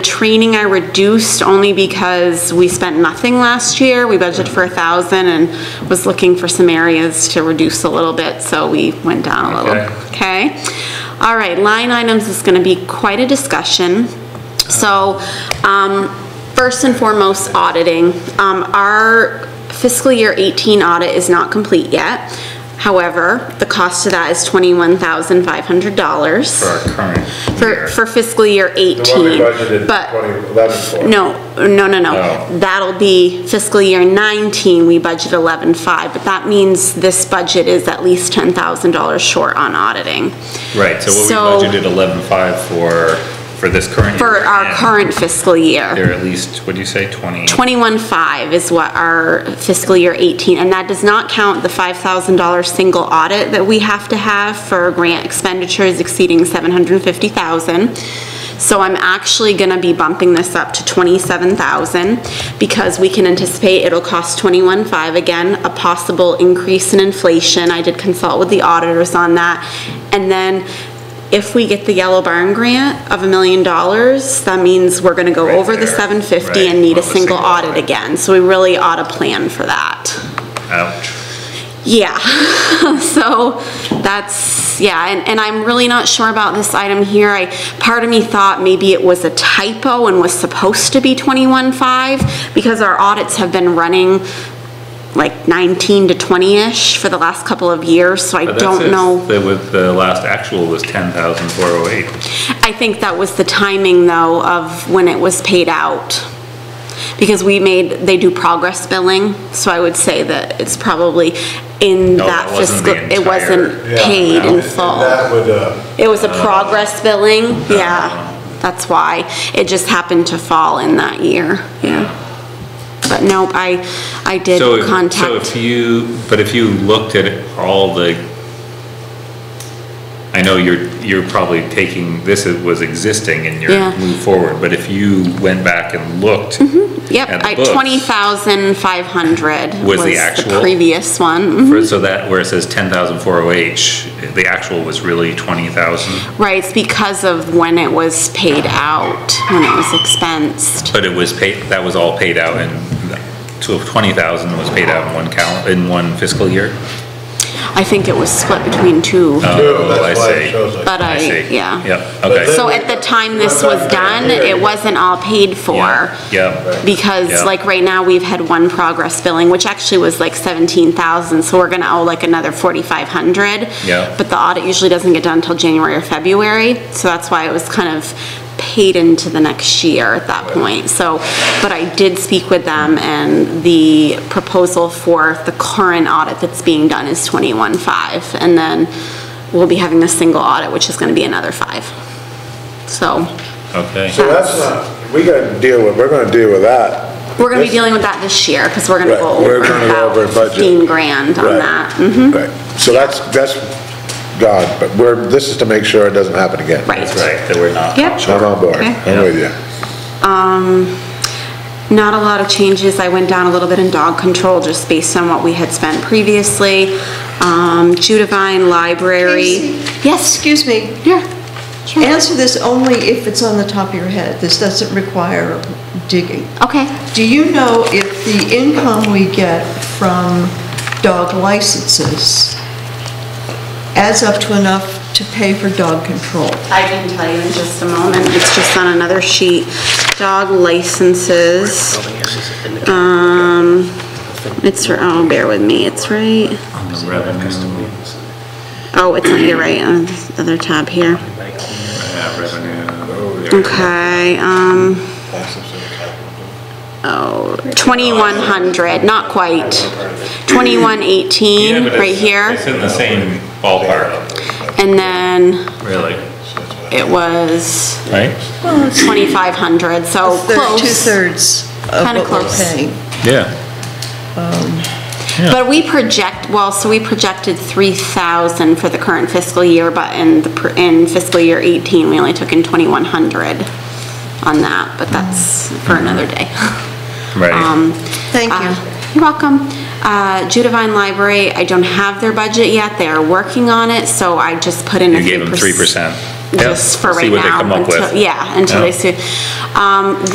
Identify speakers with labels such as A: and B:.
A: Training I reduced only because we spent nothing last year. We budgeted for a thousand and was looking for some areas to reduce a little bit, so we went down a
B: Okay.
A: little. Okay? All right, line items is gonna be quite a discussion. So, um, first and foremost, auditing. Um, our fiscal year 18 audit is not complete yet. However, the cost of that is $21,500.
B: for our current
A: For,
B: year.
A: for fiscal year 18.
C: The one we budgeted
A: But-
C: 2011 for.
A: No, no, no,
B: No.
A: no. That'll be fiscal year 19, we budget 11.5, but that means this budget is at least $10,000 short on auditing.
B: Right, so
A: So-
B: what we budgeted eleven-five for, for this current year.
A: For our
B: and
A: current fiscal year.
B: They're at least, what do you say, twenty?
A: 21.5 is what our fiscal year 18, and that does not count the $5,000 single audit that we have to have for grant expenditures exceeding 750,000. So I'm actually gonna be bumping this up to 27,000 because we can anticipate it'll cost 21.5 again, a possible increase in inflation. I did consult with the auditors on that. And then if we get the Yellow Barn grant of a million dollars, that means we're gonna go
B: Right
A: over the
B: there.
A: 750
B: Right,
A: and need a
B: over the
A: single
B: single
A: audit
B: audit.
A: again, so we really ought to plan for that.
B: Ouch.
A: Yeah, so that's, yeah, and, and I'm really not sure about this item here. I, part of me thought maybe it was a typo and was supposed to be 21.5, because our audits have been running like 19 to 20-ish for the last couple of years, so I
B: But
A: don't
B: that's-
A: know.
B: The, with the last actual was ten thousand four oh eight.
A: I think that was the timing, though, of when it was paid out. Because we made, they do progress billing, so I would say that it's probably in
B: No,
A: that
B: that wasn't the
A: fiscal, it
B: entire-
A: wasn't
C: Yeah,
A: paid in
C: and
A: full.
C: That would, uh,
A: It was a progress billing, yeah. That's why. It just happened to fall in that year, yeah. But nope, I, I did
B: So, if- so if
A: contact,
B: you, but if you looked at all the, I know you're, you're probably taking, this is- was existing and
A: Yeah. Mm-hmm.
B: you're moving forward, but if you went back and looked.
A: yep,
B: at the
A: I,
B: books-
A: 20,500
B: Was
A: was
B: the
A: the
B: actual?
A: previous one. mhm.
B: For- So that, where it says ten thousand four oh eight, the actual was really twenty thousand,
A: Right, it's because of when it was paid out, when it was expensed.
B: but it was paid, that was all paid out and twenty thousand was paid out in one cal, in one fiscal year?
A: I think it was split between two,
B: Oh, I
C: that's why
B: see.
C: it shows like.
A: but
B: I
A: I,
B: see.
A: yeah.
B: Yep, okay.
A: So at the time this was done, it wasn't all paid for.
B: Yeah,
A: Because
B: Yeah.
A: like right now, we've had one progress billing, which actually was like 17,000, so we're gonna owe like another 4,500.
B: Yeah.
A: But the audit usually doesn't get done until January or February, so that's why it was kind of paid into the next year at that point. So, but I did speak with them, and the proposal for the current audit that's being done is 21.5. And then we'll be having a single audit, which is gonna be another five. So,
B: okay.
C: So that's not, we gotta deal with, we're gonna deal with that.
A: we're gonna be dealing with that this year, because we're gonna
C: Right,
A: go over
C: we're gonna go over
A: about
C: budget.
A: 15 grand on
C: Right,
A: that. Mhm.
C: Right, so that's, that's God, but we're, this is to make sure it doesn't happen again.
A: Right.
B: That's right, that we're not.
A: Yep.
C: I'm on board,
A: Okay.
C: I'm with you.
A: Not a lot of changes. I went down a little bit in dog control, just based on what we had spent previously. Um, Judavine Library.
D: Casey?
A: Yes,
D: Excuse me,
A: yeah. sure.
D: answer this only if it's on the top of your head. This doesn't require digging.
A: Okay,
D: Do you know if the income we get from dog licenses adds up to enough to pay for dog control?
A: I can tell you in just a moment. It's just on another sheet. Dog licenses. Um, it's, oh, bear with me, it's right,
B: On the revenue,
A: oh, it's, you're right, on the other tab here.
B: yeah, revenue.
A: Okay, um, oh, 2100, not quite. 2118, right
B: It's
A: here.
B: in the same ballpark,
A: And then
B: really,
A: it was
B: right?
A: 2500, so
D: They're
A: close.
D: Two-thirds of
A: Kinda
D: what we're
A: close.
D: paying.
B: Yeah.
A: But we project, well, so we projected 3,000 for the current fiscal year, but in the, pr- in fiscal year 18, we only took in 2100 on that, but that's for another day. Um,
B: Right.
D: Thank you.
A: Uh, You're welcome. Uh, Judavine Library, I don't have their budget yet, they are working on it, so I just put in a
B: You
A: few.
B: gave them three
A: perc-
B: percent.
A: just for
B: see
A: right
B: what they
A: now.
B: come up with.
A: until- Yeah, until
B: Yeah.
A: they see. Um,